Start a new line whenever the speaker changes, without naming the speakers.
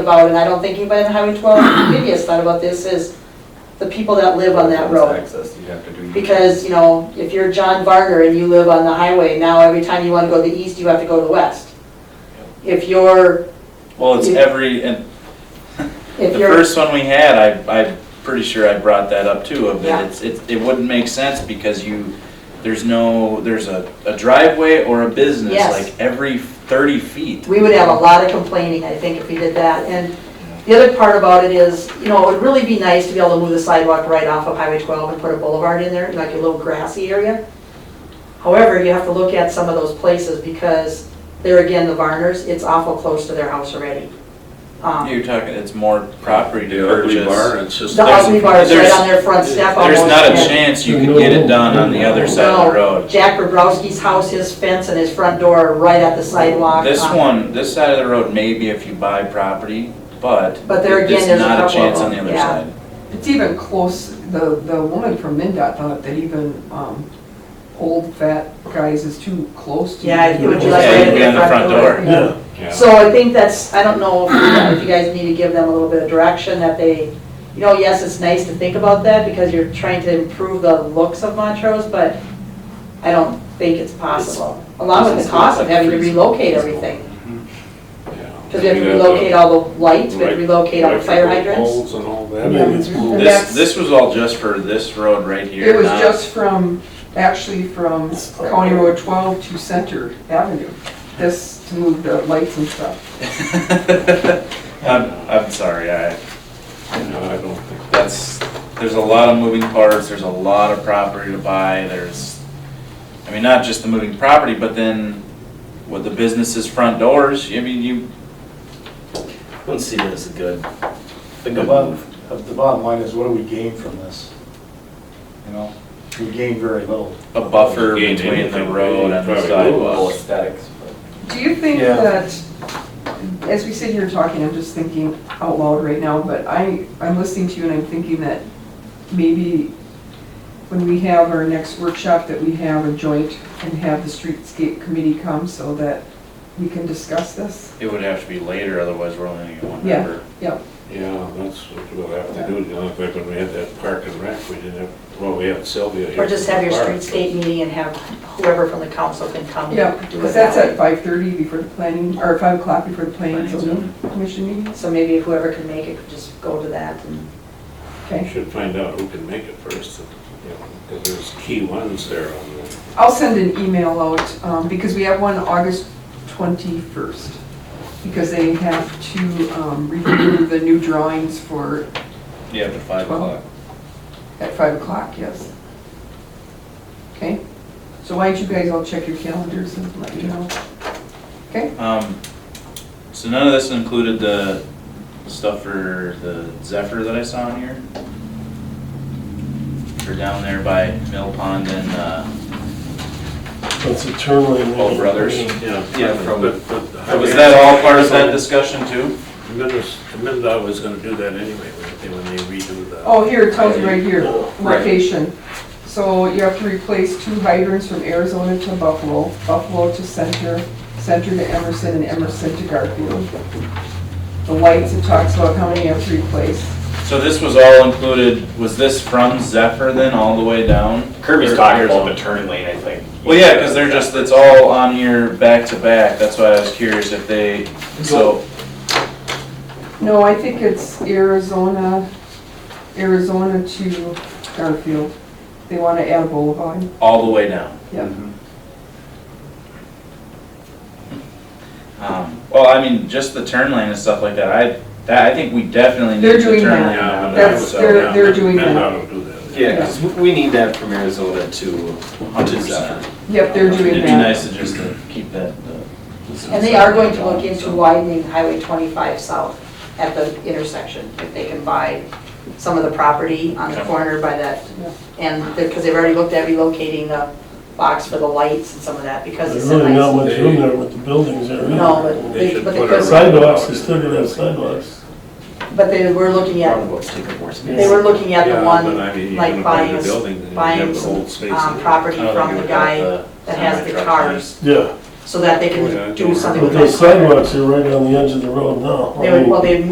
about, and I don't think anybody on Highway 12 maybe has thought about this, is the people that live on that road.
Access, you have to do.
Because, you know, if you're John Varner and you live on the highway, now every time you want to go to the east, you have to go to the west. If you're,
Well, it's
Yeah.
every, and
if
the
you're,
first one we had, I, I'm pretty sure I brought that up too, of
Yeah.
that it's, it, it wouldn't make sense because you, there's no, there's a, a driveway or a business
Yes.
like every thirty feet.
we would have a lot of complaining, I think, if we did that. And the other part about it is, you know, it would really be nice to be able to move the sidewalk right off of Highway 12 and put a boulevard in there, like a little grassy area. However, you have to look at some of those places because there again, the Varners, it's awful close to their house already. Um,
You're talking, it's more property to
The ugly bar,
purchase.
it's just.
The ugly bar is right
there's-
on their front step almost.
There's not a
and-
chance you could get it done on the other side of the road.
Jack Bobrowski's house, his fence and his front door are right at the sidewalk.
This
Um,
one, this side of the road, maybe if you buy property, but.
But there again,
it's
there's a
not
couple
chance
of
on the
them,
other
yeah.
side.
It's even close, the, the woman from MinDOT thought that even, um, old fat guys is too close to.
Yeah, it would be like
Yeah,
right
you'd be
at
on
the
the
front
front
door.
door.
Yeah,
So I think that's, I don't know if if you guys need to give them a little bit of direction that they, you know, yes, it's nice to think about that because you're trying to improve the looks of Montrose, but I don't think it's possible. Along with the cost of having to relocate everything. Because we have to relocate all the lights, we have to relocate all the fire hydrants.
Holes and all that.
Yeah, it's-
And
This,
that's-
this was all just for this road right here.
It was
not-
just from, actually from County Road twelve to Center Avenue, this, to move the lights and stuff.
I'm, I'm sorry, I,
No, I don't think.
that's, there's a lot of moving parts, there's a lot of property to buy, there's, I mean, not just the moving property, but then with the business's front doors, I mean, you,
Wouldn't see that as a good, a
the
good
bottom,
move.
the bottom line is what do we gain from this? You know, we gain very little.
a buffer
You gain
between the
anything,
road
you
and the
probably
sidewalk.
Aesthetics, but.
Do you think
Yeah.
that, as we sit here talking, I'm just thinking out loud right now, but I, I'm listening to you and I'm thinking that maybe when we have our next workshop, that we have a joint and have the streetscape committee come so that we can discuss this?
It would have to be later, otherwise we're only gonna get one
Yeah.
member.
Yep.
Yeah, that's what we'll have to do. You know, in fact, when we had that park and rec, we didn't have, well, we had Sylvia here.
Or just have your
from the
streetscape meeting and have whoever from the council can come
Yeah,
and do it
because that's
that
at
way.
five thirty before the planning, or five o'clock before the planning and zoning commission meeting,
So maybe whoever can make it could just go to that and
park. We
okay?
Should find out who can make it first, you know, because there's key ones there on the.
I'll send an email out, um, because we have one August twenty-first, because they have to, um, review the new drawings for,
Yeah, but five
Well-
o'clock.
at five o'clock, yes. Okay, so why don't you guys all check your calendars and let me know?
Um, so none of this included the stuff for the Zephyr that I saw in here? Or down there by Mill Pond and, uh,
It's a term limit.
Toll Brothers. Yeah, from-
But- but-
was that all part of that discussion too?
Minnes- MinDOT was gonna do that anyway, weren't they, when they redo the.
Oh, here, it tells you right here,
Right.
location. So you have to replace two hydrants from Arizona to Buffalo, Buffalo to Center, Center to Emerson, and Emerson to Garfield. The lights, it talks about how many you have to replace.
So this was all included, was this from Zephyr then, all the way down?
Kirby's
Or-
talking about the turn lane, I think.
Well, yeah, because they're just, it's all on your back to back, that's why I was curious if they, so,
No, I think it's Arizona, Arizona to Garfield. They want to add a boulevard.
all the way down.
Yeah.
Um, Well, I mean, just the turn lane and stuff like that, I, that, I think we definitely need
They're
the turn
doing
lane.
that.
out
Yeah,
of
but I
that,
That's-
so-
they're- they're doing that.
MinDOT will do that.
Yeah, 'cause we- we need that from Arizona to, to Zephyr.
Yep, they're doing
It'd be
that.
nice to just to keep that. uh,
And they are going to look into widening Highway 25 south at the intersection, if they can buy some of the property on the
Okay.
corner by that.
Yeah.
And, because they've already looked at relocating the box for the lights and some of that, because it's
There's
a
really not
nice.
much room there with the buildings there. either.
No, but
They
they,
should
but they
put a
could,
round-
Sidewalks, they still gonna have sidewalks.
but they were looking at,
Roundabouts take up more space.
they were looking at
Yeah,
the
but
one
I mean, you
like
wanna buy
buying
the
a s-
building, then you
buying
have the
some,
whole space
um,
in it.
property
I don't
from
think
the
it would help
guy that has the
semi-truck
cars,
Yeah,
so that they
Oh, yeah, I
can
don't
do something
but
with that.
those
corner.
sidewalks are right on the edge of the road now.
They would, well, they